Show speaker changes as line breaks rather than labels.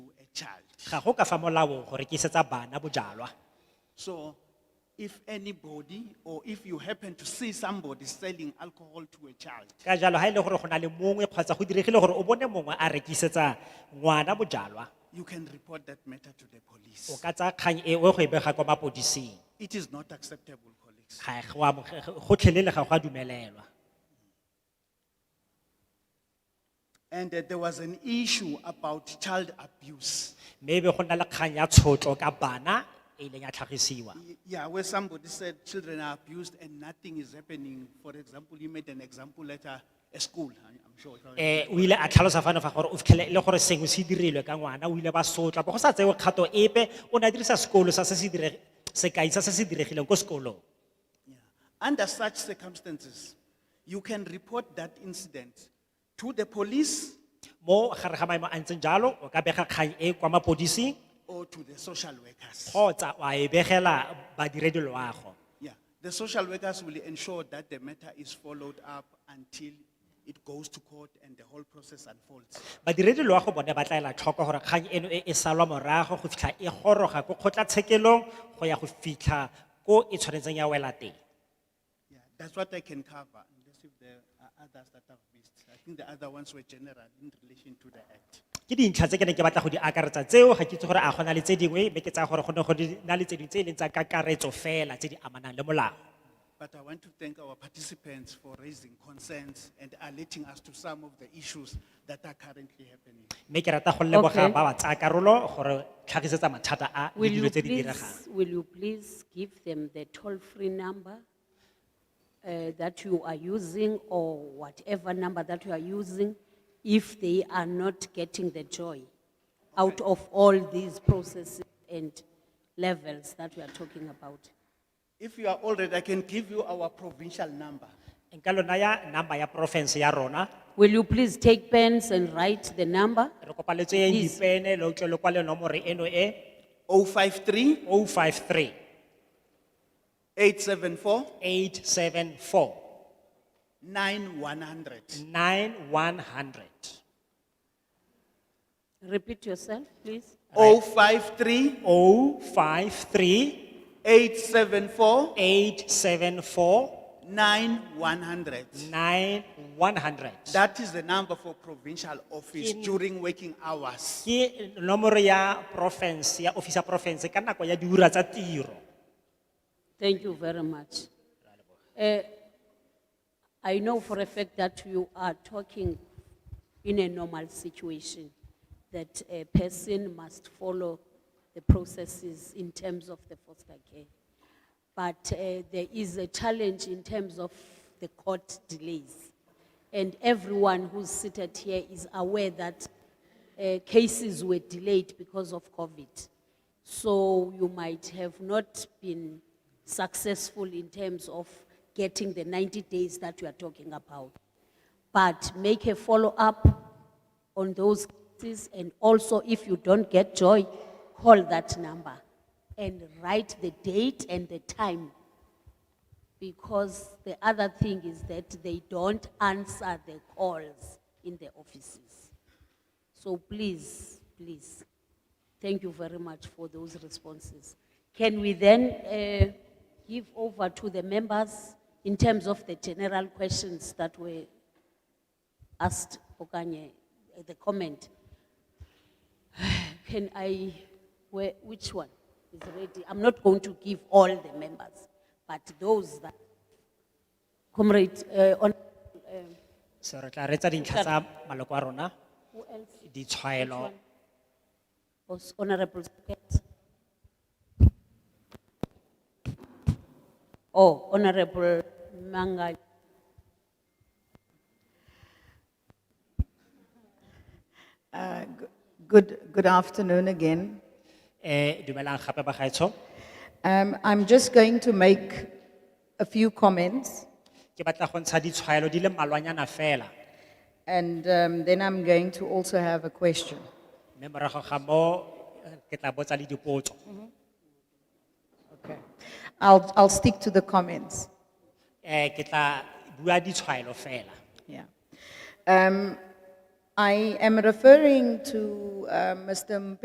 child.
ga go ka fa molaong go rekisetsa bana bojalwa
So if anybody or if you happen to see somebody selling alcohol to a child,
ka jalo ha ile gore go na le mongwe kgotsa go diregile gore o bone mongwe a rekisetsa ngwana bojalwa
you can report that matter to the police.
o ka tsaya kgang e o ye go e bega kwa mapodising
It is not acceptable, colleagues.
ga go amoge- gotlhelele ga go a dumelelwa
And uh, there was an issue about child abuse.
mme e be go nna le kgang ya tshotlo ka bana e ileng ya tlhagisiwa
Y- Yeah, where somebody said children are abused and nothing is happening. For example, you made an example at a, a school, I- I'm sure.
eh o ile a tlhalosa fano fa gore o fitlhele le gore sengwe se dirilwe ka ngwana o ile ba sotla bo go sa tsewe kgato epe o ne a dirisa sekolo sa se se dire sekai sa se se diregileng ko sekolong
Yeah. Under such circumstances, you can report that incident to the police
mo gare ga maemo a ntseng jalo o ka bega kgang e kwa mapodising
or to the social workers.
kgotsa wa e begela badiredi loago
Yeah, the social workers will ensure that the matter is followed up until it goes to court and the whole process unfolds.
badiredi loago bone ba tla ela tlhoko gore kgang eno e e salwa morago go fitlha e goroga ko kgotlatshekelong go ya go fitlha ko e tshwanetseng ya wela teng
Yeah, that's what I can cover, unless if there are others that I've missed. I think the other ones were general in relation to the act.
ke dintlha tse ke ne ke batla go di akaretsa tseo ga ke itse gore a gona le tse dingwe mme ke tsaya gore go ne go di- na le tse dingwe tse e leng tsa kakaretso fela tse di amanang le molao
But I want to thank our participants for raising concerns and alerting us to some of the issues that are currently happening.
mme ke rata go leboga
Okay.
ba ba tsaya karolo gore tlhagisetsa mathata a le
Will
dilo
you
tse di
please,
diregang
will you please give them the toll-free number uh, that you are using or whatever number that you are using if they are not getting the joy out of all these processes and levels that we are talking about?
If you are already, I can give you our provincial number.
nka lona ya number ya porofense ya rona
Will you please take pens and write the number?
re kopa le tseyeng
Please.
dipene le utlwe le kwale nomore eno e
053
o five three
874
eight seven four
9100.
nine one hundred
Repeat yourself, please.
053
o five three
874
eight seven four
9100.
nine one hundred
That is the number for provincial office
Ke-
during working hours.
ke nomoro ya province ya office ya province ka nako ya diura tsa tiro
Thank you very much. Eh, I know for a fact that you are talking in a normal situation, that a person must follow the processes in terms of the foster care. But eh, there is a challenge in terms of the court delays. And everyone who's seated here is aware that eh, cases were delayed because of COVID. So you might have not been successful in terms of getting the 90 days that we are talking about. But make a follow-up on those cases and also if you don't get joy, call that number and write the date and the time. Because the other thing is that they don't answer the calls in the offices. So please, please, thank you very much for those responses. Can we then uh, give over to the members in terms of the general questions that were asked, okanye, eh, the comment? Can I, where, which one is ready? I'm not going to give all the members, but those that, comrade, uh, on,
so re tla retsa dintlha tsa maloko a rona
who else?
ditshwaelo
Was Honorable Spears. Oh, Honorable Mangai.
Uh, g- Good, good afternoon again.
eh dumelang gape ba gaetsho
Um, I'm just going to make a few comments
ke batla go ntsha ditshwaelo di le mmalwanyana fela
and um, then I'm going to also have a question.
mme morago ga mo eh, ke tla botsa le dipotso
Okay. I'll, I'll stick to the comments.
eh ke tla bua ditshwaelo fela
Yeah. Um, I am referring to uh, Mr.